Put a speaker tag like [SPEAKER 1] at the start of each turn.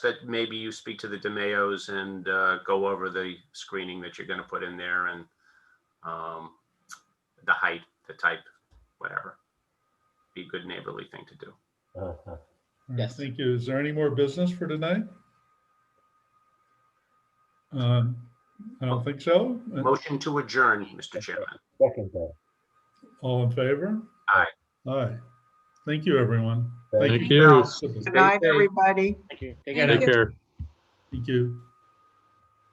[SPEAKER 1] that maybe you speak to the DeMayos and uh, go over the screening that you're going to put in there and um, the height, the type, whatever. Be a good neighborly thing to do.
[SPEAKER 2] Uh-huh.
[SPEAKER 3] Yes.
[SPEAKER 4] Thank you. Is there any more business for tonight? Um, I don't think so.
[SPEAKER 1] Motion to adjourn, Mr. Chairman.
[SPEAKER 2] Second that.
[SPEAKER 4] All in favor?
[SPEAKER 1] Aye.
[SPEAKER 4] Aye. Thank you, everyone.
[SPEAKER 2] Thank
[SPEAKER 5] Thank you.
[SPEAKER 4] Thank
[SPEAKER 6] Good night,
[SPEAKER 3] safe.
[SPEAKER 6] everybody.
[SPEAKER 3] Thank you. Take
[SPEAKER 6] Thank
[SPEAKER 3] care.
[SPEAKER 5] Take care.
[SPEAKER 4] Thank you.